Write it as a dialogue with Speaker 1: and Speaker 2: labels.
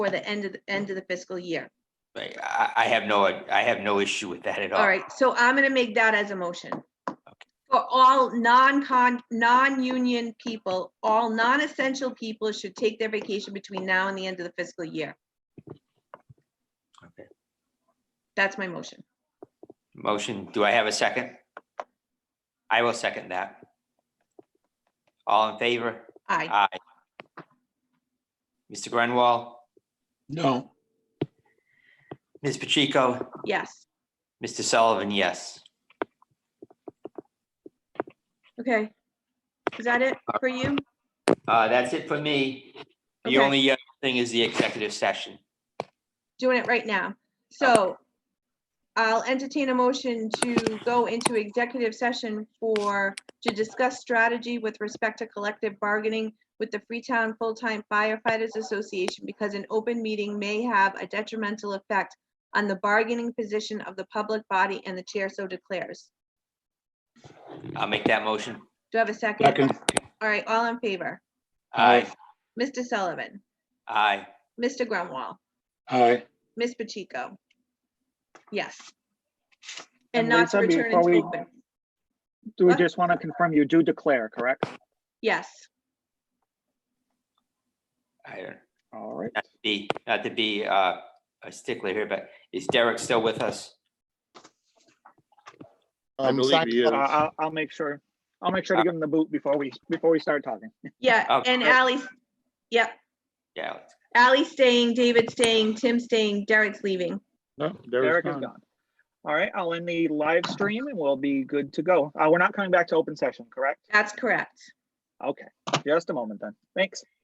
Speaker 1: for the end of, the end of the fiscal year.
Speaker 2: Like, I, I have no, I have no issue with that at all.
Speaker 1: All right, so I'm gonna make that as a motion. For all non-con, non-union people, all non-essential people should take their vacation between now and the end of the fiscal year.
Speaker 2: Okay.
Speaker 1: That's my motion.
Speaker 2: Motion, do I have a second? I will second that. All in favor?
Speaker 1: Aye.
Speaker 2: Aye. Mr. Grenwall,
Speaker 3: No,
Speaker 2: Ms. Pacheco,
Speaker 1: yes.
Speaker 2: Mr. Sullivan, yes.
Speaker 1: Okay. Is that it for you?
Speaker 2: Uh, that's it for me. The
Speaker 1: Okay.
Speaker 2: only uh, thing is the executive session.
Speaker 1: Doing it right now. So I'll entertain a motion to go into executive session for, to discuss strategy with respect to collective bargaining with the Freetown Full-Time Firefighters Association because an open meeting may have a detrimental effect on the bargaining position of the public body and the chair so declares.
Speaker 2: I'll make that motion.
Speaker 1: Do I have a second?
Speaker 3: second,
Speaker 1: All right, all in favor?
Speaker 2: Aye,
Speaker 1: Mr. Sullivan,
Speaker 2: aye.
Speaker 1: Mr. Grunwall,
Speaker 3: aye.
Speaker 1: Ms. Pacheco. Yes. And
Speaker 4: And
Speaker 1: not to
Speaker 4: Lisa,
Speaker 1: return
Speaker 4: before
Speaker 1: into
Speaker 4: we-
Speaker 1: open.
Speaker 4: Do we
Speaker 1: What?
Speaker 4: just want to confirm you do declare, correct?
Speaker 1: Yes.
Speaker 2: I don't,
Speaker 4: All right.
Speaker 2: not to be, not to be uh, a stickler here, but is Derek still with us?
Speaker 5: I
Speaker 6: Um,
Speaker 5: believe
Speaker 6: sign
Speaker 5: he
Speaker 6: us
Speaker 4: Uh,
Speaker 5: is.
Speaker 6: up.
Speaker 4: I'll, I'll make sure, I'll make sure to give him the boot before we, before we start talking.
Speaker 1: Yeah,
Speaker 2: Okay.
Speaker 1: and Ally's, yep,
Speaker 2: Yeah,
Speaker 1: Ally's staying, David's staying, Tim's staying, Derek's leaving.
Speaker 5: No,
Speaker 4: Eric
Speaker 5: Derek's
Speaker 4: is
Speaker 5: gone.
Speaker 4: gone. All right, I'll end the live stream and we'll be good to go. Uh, we're not coming back to open session, correct?
Speaker 1: That's correct.
Speaker 4: Okay, just a moment then. Thanks.